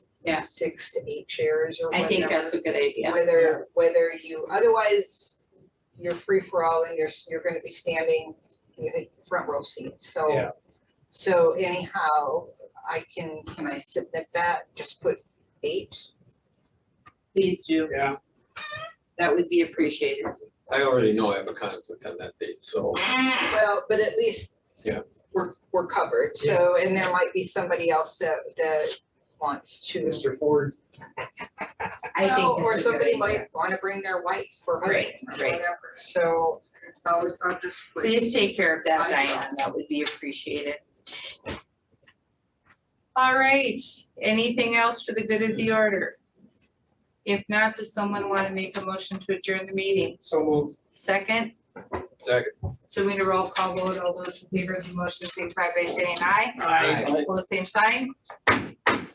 Yeah. six to eight chairs or I whatever. think that's a good idea. Whether, whether you, otherwise, you're free for all and you're, s- you're gonna be standing in the front row seats, so. Yeah. So anyhow, I can, can I submit that, just put eight? Please do. Yeah. That would be appreciated. I already know I have a conflict on that date, so, Well, but at least. Yeah. We're, we're covered, Yeah. so, and there might be somebody else that, that wants to. Mr. Ford, I think. Well, Or that's a good somebody idea. might wanna bring their wife or husband Right, or right. whatever, so I'll, I'll just. put- Please take care of that, I Diane, that would be appreciated. All right, anything else for the good of the order? If not, does someone want to make a motion to adjourn the meeting? so moved. Second, Zach, so we need a roll call vote, all those in favor of the motion signify by saying aye. Aye. Opposed, same sign,